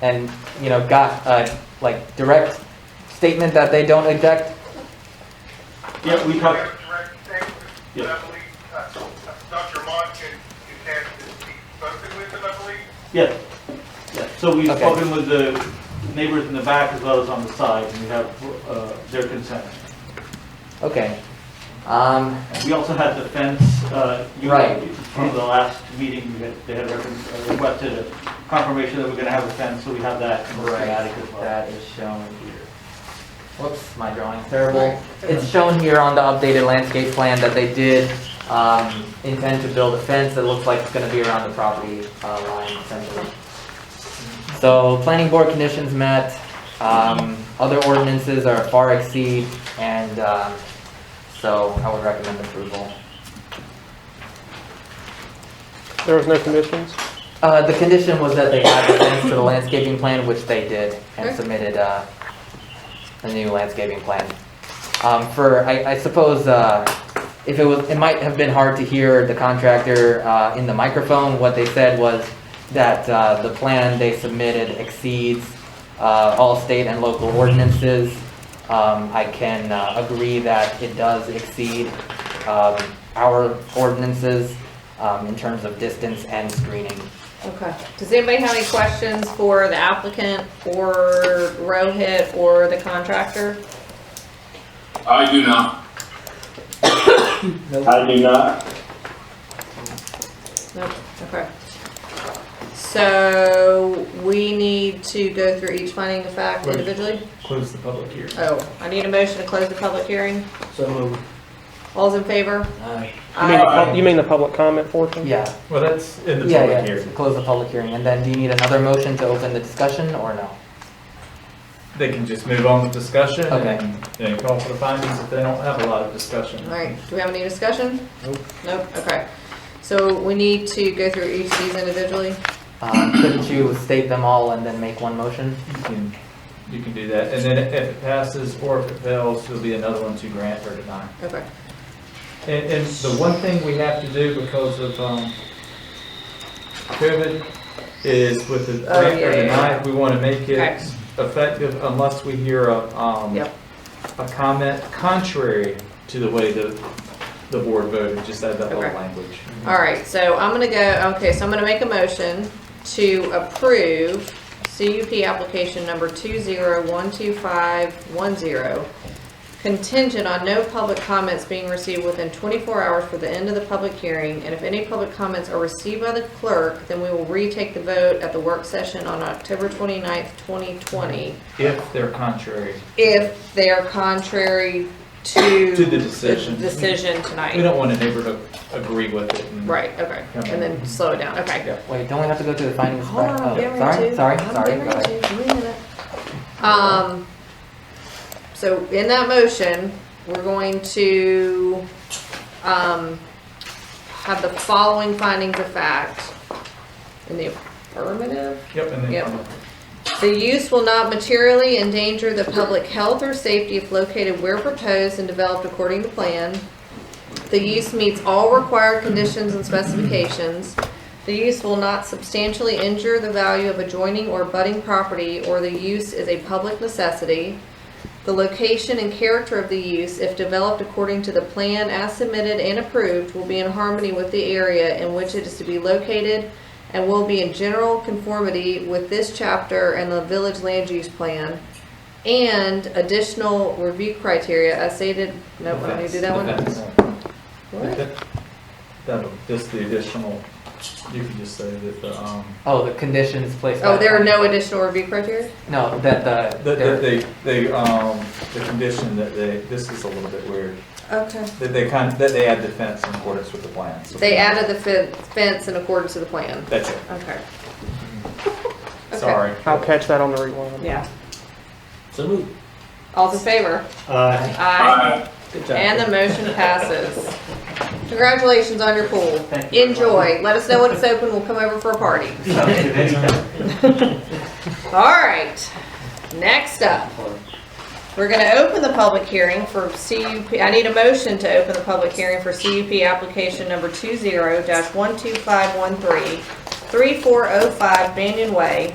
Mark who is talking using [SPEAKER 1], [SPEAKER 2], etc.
[SPEAKER 1] and, you know, got a, like, direct statement that they don't object?
[SPEAKER 2] Yeah, we
[SPEAKER 3] Direct,
[SPEAKER 2] talked,
[SPEAKER 3] direct thing, but I believe, uh, Dr. Mott can, can have this be spoken with, and I believe.
[SPEAKER 2] yes. Yeah, so we've
[SPEAKER 1] Okay.
[SPEAKER 2] spoken with the neighbors in the back as well as on the side, and we have uh, their consent.
[SPEAKER 1] Okay. Um,
[SPEAKER 2] And We also had the fence, uh, you,
[SPEAKER 1] Right.
[SPEAKER 2] from the last meeting, you had- they had requ- uh, requested a confirmation that we're going to have a fence, so we have that in the schematic as well.
[SPEAKER 1] That is shown here. Whoops, my drawing's terrible. It's shown here on the updated landscape plan that they did, um, intend to build a fence that looks like it's gonna be around the property, uh, line essentially. So, planning board conditions met, um, other ordinances are far exceed, and, um, so I would recommend approval.
[SPEAKER 4] There was no conditions?
[SPEAKER 1] Uh, the condition was that they add the fence to the landscaping plan, which they did, and submitted, uh, a new landscaping plan. Um, for, I, I suppose, uh, if it was, it might have been hard to hear the contractor, uh, in the microphone, what they said was that, uh, the plan they submitted exceeds, uh, all state and local ordinances. Um, I can, uh, agree that it does exceed, um, our ordinances, um, in terms of distance and screening.
[SPEAKER 5] Okay. Does anybody have any questions for the applicant or Rohit or the contractor?
[SPEAKER 6] I do not. I do not.
[SPEAKER 5] Nope, okay. So we need to go through each finding of fact individually?
[SPEAKER 7] Close the public hearing.
[SPEAKER 5] Oh, I need a motion to close the public hearing.
[SPEAKER 7] So moved.
[SPEAKER 5] All's in favor?
[SPEAKER 1] Aye.
[SPEAKER 4] You mean the
[SPEAKER 5] Aye.
[SPEAKER 4] pub- You mean the public comment portion?
[SPEAKER 1] Yeah,
[SPEAKER 7] Well, that's in the
[SPEAKER 1] yeah,
[SPEAKER 7] public
[SPEAKER 1] yeah,
[SPEAKER 7] hearing.
[SPEAKER 1] close the public hearing, and then do you need another motion to open the discussion, or no?
[SPEAKER 7] They can just move on with discussion
[SPEAKER 1] Okay.
[SPEAKER 7] and they call for the findings if they don't have a lot of discussion.
[SPEAKER 5] All right, do we have any discussion? Nope, okay. So we need to go through each of these individually?
[SPEAKER 1] Uh, Couldn't you state them all and then make one motion?
[SPEAKER 7] You can, you can do that. And then if it passes or if it fails, there'll be another one to grant or deny.
[SPEAKER 5] Okay.
[SPEAKER 7] And, and the one thing we have to do because of, um, COVID is with the
[SPEAKER 5] Oh,
[SPEAKER 7] grant
[SPEAKER 5] yeah,
[SPEAKER 7] or
[SPEAKER 5] yeah,
[SPEAKER 7] deny, we want to make
[SPEAKER 5] Okay.
[SPEAKER 7] it effective unless we hear a, um,
[SPEAKER 5] Yep.
[SPEAKER 7] a comment contrary to the way the, the board voted, just add that little
[SPEAKER 5] Okay.
[SPEAKER 7] language.
[SPEAKER 5] All right, so I'm gonna go, okay, so I'm gonna make a motion to approve CUP application number two zero one two five one zero contingent on no public comments being received within twenty-four hours for the end of the public hearing, and if any public comments are received by the clerk, then we will retake the vote at the work session on October twenty-ninth, twenty twenty,
[SPEAKER 7] If they're contrary,
[SPEAKER 5] if they are contrary to
[SPEAKER 7] To the decision.
[SPEAKER 5] the decision tonight.
[SPEAKER 7] we don't want a neighbor to agree with it. and-
[SPEAKER 5] Right, okay, and then slow it down, okay.
[SPEAKER 1] Wait, don't we have to go through the findings? of
[SPEAKER 5] Hold
[SPEAKER 1] fact?
[SPEAKER 5] on, I'm
[SPEAKER 1] Oh,
[SPEAKER 5] getting ready
[SPEAKER 1] Sorry,
[SPEAKER 5] to.
[SPEAKER 1] sorry,
[SPEAKER 5] I'm
[SPEAKER 1] sorry,
[SPEAKER 5] getting
[SPEAKER 1] go ahead.
[SPEAKER 5] ready to. Wait a minute. Um, so in that motion, we're going to, um, have the following findings of fact in the affirmative.
[SPEAKER 7] Yep, and
[SPEAKER 5] Yep.
[SPEAKER 7] then,
[SPEAKER 5] The use will not materially endanger the public health or safety if located where proposed and developed according to plan. The use meets all required conditions and specifications. The use will not substantially injure the value of adjoining or budding property, or the use is a public necessity. The location and character of the use, if developed according to the plan as submitted and approved, will be in harmony with the area in which it is to be located and will be in general conformity with this chapter and the village land use plan. And additional review criteria as stated, no, I need to do that one.
[SPEAKER 7] Defense.
[SPEAKER 5] What?
[SPEAKER 7] That'll, just the additional, you can just say that the, um,
[SPEAKER 1] Oh, the conditions placed.
[SPEAKER 5] Oh,
[SPEAKER 1] by-
[SPEAKER 5] there are no additional review criteria?
[SPEAKER 1] No, that the,
[SPEAKER 7] that, that
[SPEAKER 1] there-
[SPEAKER 7] they, they, um, the condition that they, this is a little bit weird,
[SPEAKER 5] Okay.
[SPEAKER 7] that they kind, that they add defense in accordance with the plan. so-
[SPEAKER 5] They added the fen- fence in accordance to the plan.
[SPEAKER 7] That's it,
[SPEAKER 5] Okay. Okay.
[SPEAKER 7] sorry.
[SPEAKER 4] I'll catch that on the rewind.
[SPEAKER 5] Yeah.
[SPEAKER 7] So move.
[SPEAKER 5] All's in favor?
[SPEAKER 7] Aye.
[SPEAKER 5] Aye. And the motion passes. Congratulations on your pool.
[SPEAKER 2] Thank you.
[SPEAKER 5] Enjoy. Let us know when it's open. We'll come over for a party.
[SPEAKER 2] Anytime.
[SPEAKER 5] All right. Next up, we're going to open the public hearing for CUP. I need a motion to open the public hearing for CUP application number 20-12513, 3405 Banyan Way,